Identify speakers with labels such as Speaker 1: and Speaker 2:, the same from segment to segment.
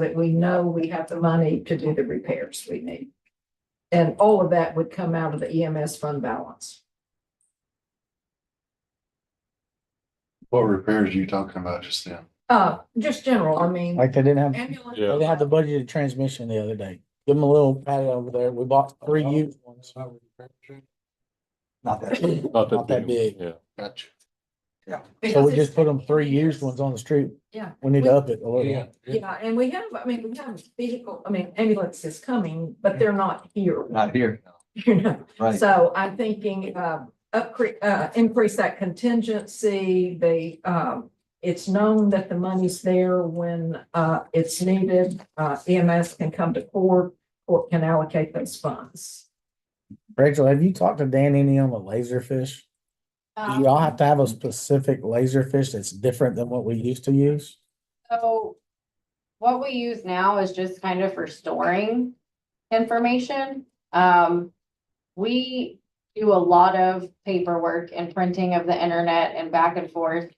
Speaker 1: that we know we have the money to do the repairs we need. And all of that would come out of the EMS fund balance.
Speaker 2: What repairs are you talking about just then?
Speaker 1: Uh, just general, I mean,
Speaker 3: Like they didn't have,
Speaker 1: ambulance.
Speaker 2: Yeah.
Speaker 3: they had the budgeted transmission the other day. Give them a little pat over there. We bought three used ones. Not that. big.
Speaker 4: Not
Speaker 3: Not that big.
Speaker 4: Yeah.
Speaker 2: Gotcha.
Speaker 3: So
Speaker 1: because
Speaker 3: we just
Speaker 1: it's-
Speaker 3: put them three used ones on the street.
Speaker 1: Yeah.
Speaker 3: We need to up it a
Speaker 4: Yeah.
Speaker 3: little.
Speaker 1: Yeah, and we have, I mean, we have vehicle, I mean, ambulance is coming, but they're not here,
Speaker 5: Not here,
Speaker 1: you know?
Speaker 5: right?
Speaker 1: So I'm thinking, uh, upcre- uh, increase that contingency, they, um, it's known that the money's there when, uh, it's needed. Uh, EMS can come to court, court can allocate those funds.
Speaker 3: Rachel, have you talked to Dan any on the laser fish?
Speaker 1: Uh,
Speaker 3: Do y'all have to have a specific laser fish that's different than what we used to use?
Speaker 6: So what we use now is just kind of for storing information. Um, we do a lot of paperwork and printing of the internet and back and forth.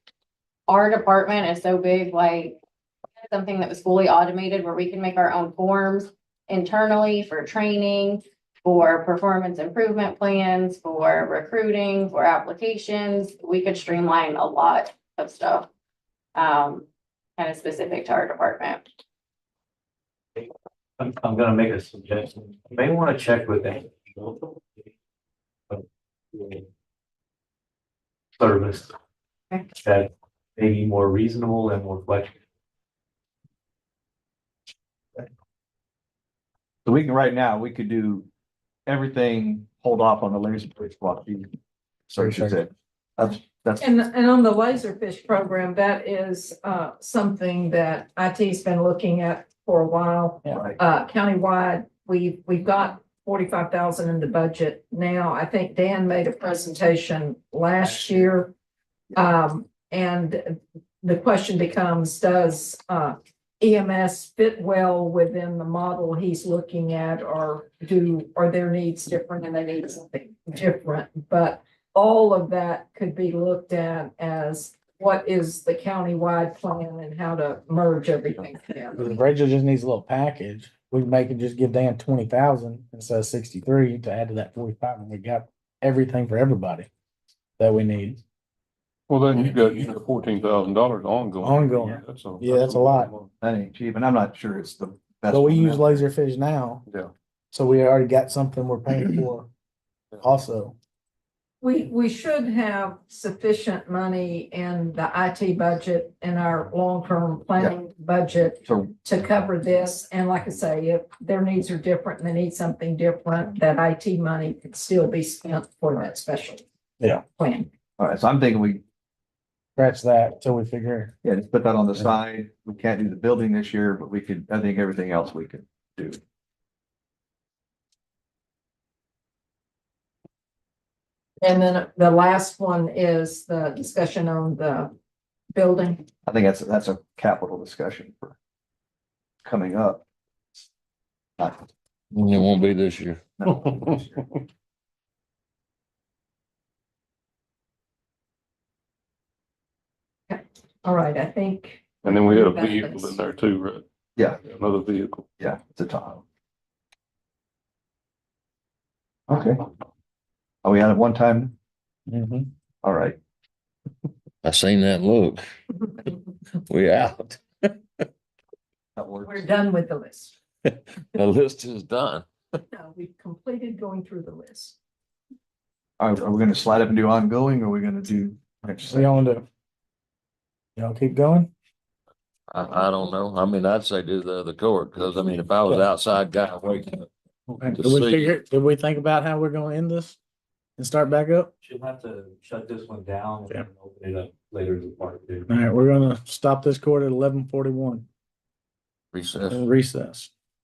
Speaker 6: Our department is so big, like something that was fully automated where we can make our own forms internally for training, for performance improvement plans, for recruiting, for applications. We could streamline a lot of stuff. Um, kind of specific to our department.
Speaker 7: I'm, I'm gonna make a suggestion. You may wanna check with them. Service.
Speaker 6: Okay.
Speaker 7: That may be more reasonable and more flexible.
Speaker 5: So we can, right now, we could do everything, hold off on the laser bridge while he searches it. That's, that's,
Speaker 1: And, and on the Laserfish program, that is, uh, something that IT's been looking at for a while.
Speaker 5: right.
Speaker 1: uh, countywide, we, we've got forty-five thousand in the budget now. I think Dan made a presentation last year. Um, and the question becomes, does, uh, EMS fit well within the model he's looking at? Or do, are their needs different and they need something different? But all of that could be looked at as what is the countywide plan and how to merge everything together.
Speaker 3: If Rachel just needs a little package. We can make it just give Dan twenty thousand instead of sixty-three to add to that forty-five and we got everything for everybody that we need.
Speaker 4: Well, then you got, you got fourteen thousand dollars ongoing.
Speaker 3: Ongoing.
Speaker 4: That's a.
Speaker 3: Yeah, that's a lot.
Speaker 5: that ain't cheap, and I'm not sure it's the best.
Speaker 3: But we
Speaker 5: one.
Speaker 3: use laserfish now.
Speaker 4: Yeah.
Speaker 3: So we already got something we're paying for also.
Speaker 1: We, we should have sufficient money in the IT budget in our long-term planning budget
Speaker 5: So
Speaker 1: to cover this. And like I say, if their needs are different and they need something different, that IT money could still be spent for that special
Speaker 3: Yeah.
Speaker 1: plan.
Speaker 5: All right, so I'm thinking we,
Speaker 3: Scratch that till we figure.
Speaker 5: yeah, just put that on the side. We can't do the building this year, but we could, I think everything else we could do.
Speaker 1: And then the last one is the discussion on the building.
Speaker 5: I think that's, that's a capital discussion for coming up. Not-
Speaker 4: It won't be this year.
Speaker 5: no.
Speaker 1: All right, I think,
Speaker 4: And then we had a vehicle in there too, right?
Speaker 5: Yeah.
Speaker 4: Another vehicle.
Speaker 5: Yeah, it's a Tahoe. Okay. Are we out of one time?
Speaker 3: Mhm.
Speaker 5: All right.
Speaker 8: I seen that look. We out.
Speaker 5: That works.
Speaker 1: we're done with the list.
Speaker 8: The list is done.
Speaker 1: No, we've completed going through the list.
Speaker 5: All right, are we gonna slide up and do ongoing or are we gonna do?
Speaker 3: So y'all want to? Y'all keep going?
Speaker 8: I, I don't know. I mean, I'd say do the other court, because I mean, if I was outside guy waking up.
Speaker 3: Did
Speaker 8: see.
Speaker 3: we figure, did we think about how we're gonna end this? And start back up?
Speaker 7: She'll have to shut this one down and
Speaker 3: Yeah.
Speaker 7: then open it up later as a part two.
Speaker 3: All right, we're gonna stop this court at eleven forty-one
Speaker 8: Recess.
Speaker 3: and recess.